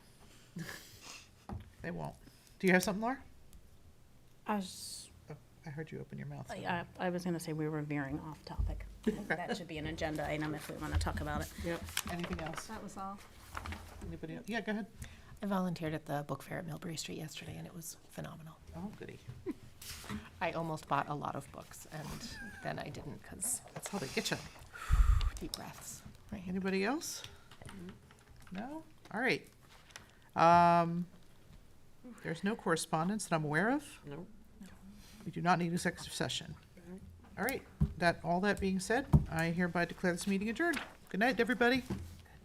They won't. Do you have something, Laura? I was, Oh, I heard you open your mouth. so- I, I was gonna say we were veering off topic. I think That should be an agenda item if we wanna talk about it. Yep. Anything else? That was all. Anybody else? Yeah, go ahead. I volunteered at the book fair at Millbury Street yesterday, and it was phenomenal. Oh, goody. I almost bought a lot of books, and then I didn't because That's how they get you. deep breaths. Anybody else? No? All right. Um, there's no correspondence that I'm aware of. No. We do not need executive session. All right, that, all that being said, I hereby declare this meeting adjourned. Good night, everybody.